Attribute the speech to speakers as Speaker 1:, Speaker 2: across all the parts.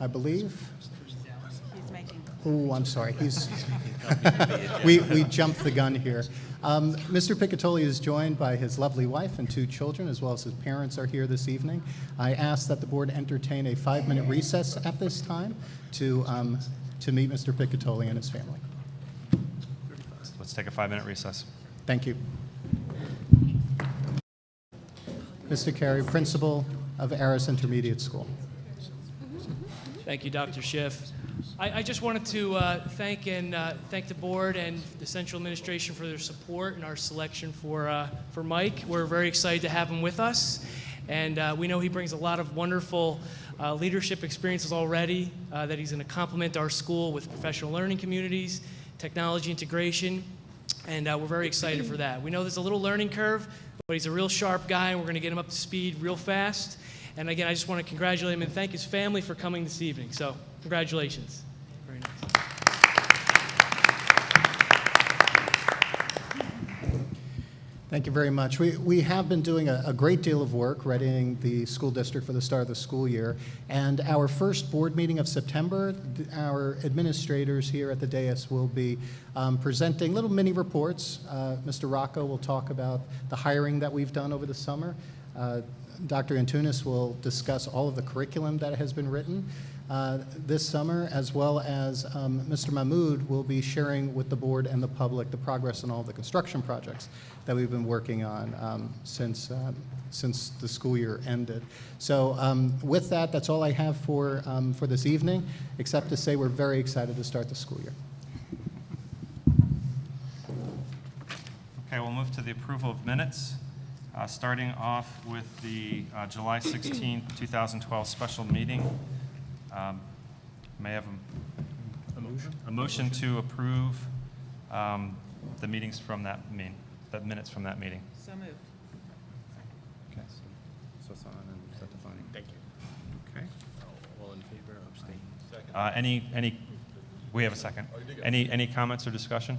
Speaker 1: I believe.
Speaker 2: He's making.
Speaker 1: Oh, I'm sorry. He's, we, we jumped the gun here. Um, Mr. Picatoli is joined by his lovely wife and two children, as well as his parents are here this evening. I ask that the board entertain a five-minute recess at this time to, um, to meet Mr. Picatoli and his family.
Speaker 3: Let's take a five-minute recess.
Speaker 1: Thank you. Mr. Carey, principal of Aris Intermediate School.
Speaker 4: Thank you, Dr. Schiff. I, I just wanted to uh, thank and uh, thank the board and the central administration for their support and our selection for uh, for Mike. We're very excited to have him with us, and uh, we know he brings a lot of wonderful uh, leadership experiences already. Uh, that he's going to complement our school with professional learning communities, technology integration, and uh, we're very excited for that. We know there's a little learning curve, but he's a real sharp guy, and we're going to get him up to speed real fast. And again, I just want to congratulate him and thank his family for coming this evening. So, congratulations. Very nice.
Speaker 1: Thank you very much. We, we have been doing a, a great deal of work readying the school district for the start of the school year. And our first board meeting of September, th- our administrators here at the dais will be um, presenting little mini reports. Uh, Mr. Rocco will talk about the hiring that we've done over the summer. Uh, Dr. Antunes will discuss all of the curriculum that has been written uh, this summer, as well as um, Mr. Mahmood will be sharing with the board and the public the progress on all the construction projects that we've been working on um, since, um, since the school year ended. So um, with that, that's all I have for, um, for this evening, except to say we're very excited to start the school year.
Speaker 3: Okay, we'll move to the approval of minutes, uh, starting off with the uh, July 16, 2012 special meeting. Um, May I have a- a motion to approve um, the meetings from that mean, the minutes from that meeting.
Speaker 2: So moved.
Speaker 3: Okay. Thank you. Okay.
Speaker 5: All in favor, abstain.
Speaker 3: Uh, Any, any, we have a second. Any, any comments or discussion?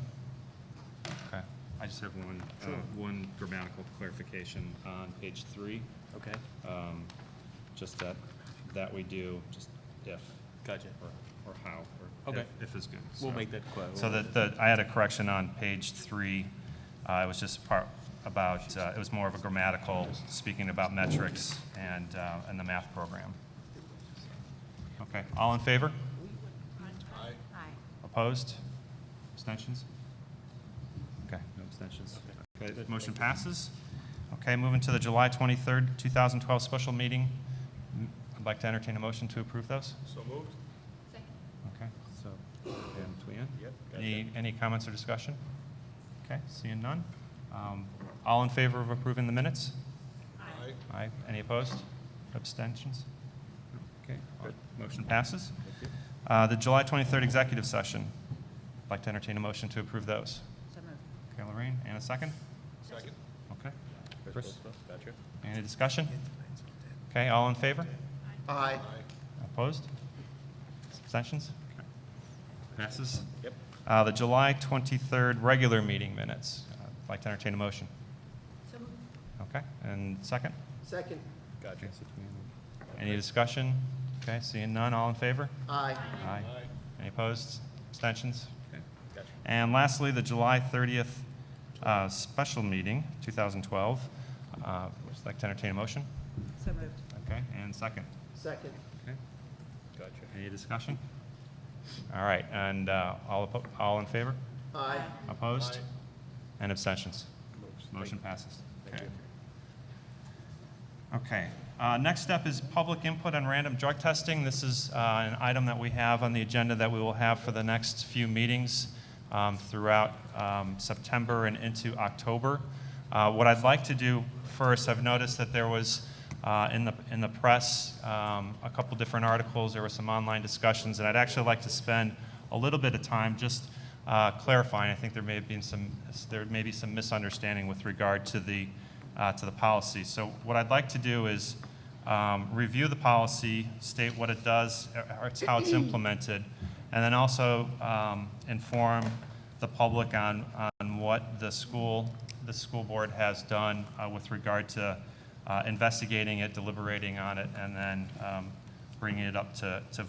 Speaker 3: Okay. I just have one, uh, one grammatical clarification on page three,
Speaker 5: Okay,
Speaker 3: um, just that, that we do, just if.
Speaker 5: Gotcha.
Speaker 3: Or or how, or
Speaker 5: Okay.
Speaker 3: if- if is good.
Speaker 5: we'll
Speaker 3: so.
Speaker 5: make that clear.
Speaker 3: So that, the I had a correction on page three. Uh, it was just part about, uh, it was more of a grammatical, speaking about metrics and, uh, and the math program. Okay, all in favor?
Speaker 2: Aye.
Speaker 3: Opposed? Abstentions? Okay, no abstentions. Okay, that motion passes. Okay, moving to the July 23rd, 2012 special meeting. M- I'd like to entertain a motion to approve those.
Speaker 5: So moved?
Speaker 3: Okay. So, and Leanne?
Speaker 5: Yep.
Speaker 3: Any, any comments or discussion? Okay, seeing none. Um, All in favor of approving the minutes?
Speaker 5: Aye.
Speaker 3: Aye. Any opposed? Abstentions? Okay, all- motion passes. Uh, The July 23rd executive session. I'd Like to entertain a motion to approve those.
Speaker 2: So moved.
Speaker 3: Okay, Lorraine, and a second?
Speaker 5: Second?
Speaker 3: Okay. Chris,
Speaker 5: Gotcha.
Speaker 3: any discussion? Okay, all in favor?
Speaker 1: Aye.
Speaker 3: Opposed? Abstentions? Passes.
Speaker 5: Yep.
Speaker 3: Uh, The July 23rd regular meeting minutes. Uh, I'd like to entertain a motion. Okay, and second?
Speaker 1: Second.
Speaker 5: Gotcha.
Speaker 3: Any discussion? Okay, seeing none, all in favor?
Speaker 1: Aye.
Speaker 3: Aye. Any opposed? Abstentions?
Speaker 5: Gotcha.
Speaker 3: And lastly, the July 30th uh, special meeting, 2012. Uh, I'd like to entertain a motion.
Speaker 2: So moved.
Speaker 3: Okay, and second?
Speaker 1: Second.
Speaker 3: Okay.
Speaker 5: Gotcha.
Speaker 3: Any discussion? All right, and uh, all, oppo- all in favor?
Speaker 1: Aye.
Speaker 3: Opposed?
Speaker 5: Aye.
Speaker 3: And abstentions? Motion
Speaker 5: Thank-
Speaker 3: passes.
Speaker 5: Thank
Speaker 3: Okay.
Speaker 5: you.
Speaker 3: Okay. Uh, Next step is public input on random drug testing. This is uh, an item that we have on the agenda that we will have for the next few meetings um, throughout um, September and into October. Uh, What I'd like to do first, I've noticed that there was uh, in the, in the press, um, a couple different articles, there were some online discussions, and I'd actually like to spend a little bit of time just uh, clarifying. I think there may have been some, there may be some misunderstanding with regard to the, uh, to the policy. So what I'd like to do is um, review the policy, state what it does, uh, or- or it's how it's implemented, and then also um, inform the public on, on what the school, the school board has done uh, with regard to uh, investigating it, deliberating on it, and then um, bringing it up to, to